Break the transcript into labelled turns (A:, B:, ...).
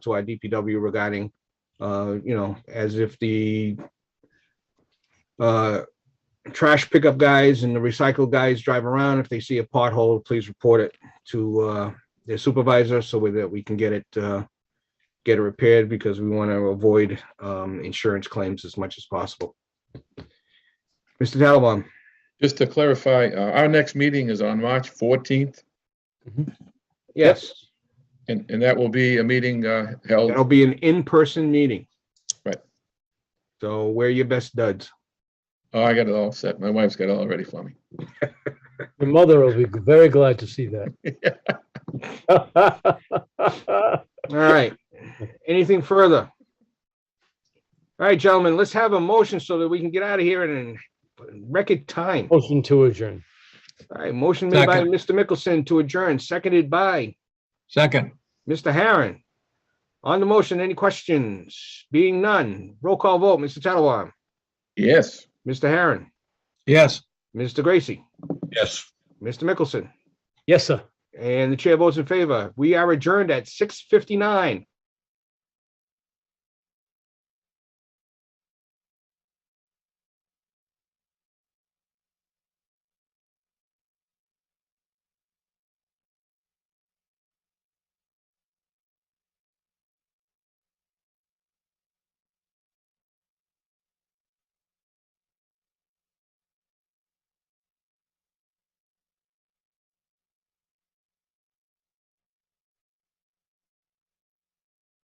A: to our DPW regarding, uh, you know, as if the uh, trash pickup guys and the recycle guys drive around. If they see a pothole, please report it to uh, their supervisor so that we can get it, uh, get it repaired because we want to avoid um, insurance claims as much as possible. Mr. Tattelbaum,
B: Just to clarify, uh, our next meeting is on March fourteenth,
A: yes,
B: and, and that will be a meeting, uh,
A: that'll
B: held,
A: be an in-person meeting.
B: Right.
A: So wear your best duds.
B: oh, I got it all set. My wife's got it all ready for me.
C: Your mother will be very glad to see that.
A: All right. Anything further? All right, gentlemen, let's have a motion so that we can get out of here in record time. All
C: Motion to adjourn.
A: right, motion made by
D: Second.
A: Mr. Mickelson to adjourn, seconded by
D: Second,
A: Mr. Harron. On the motion, any questions? Being none, roll call vote, Mr. Tattelbaum,
B: Yes,
A: Mr. Harron,
D: yes.
A: Mr. Gracie,
D: Yes.
A: Mr. Mickelson,
C: Yes, sir.
A: and the chair votes in favor. We are adjourned at six fifty-nine.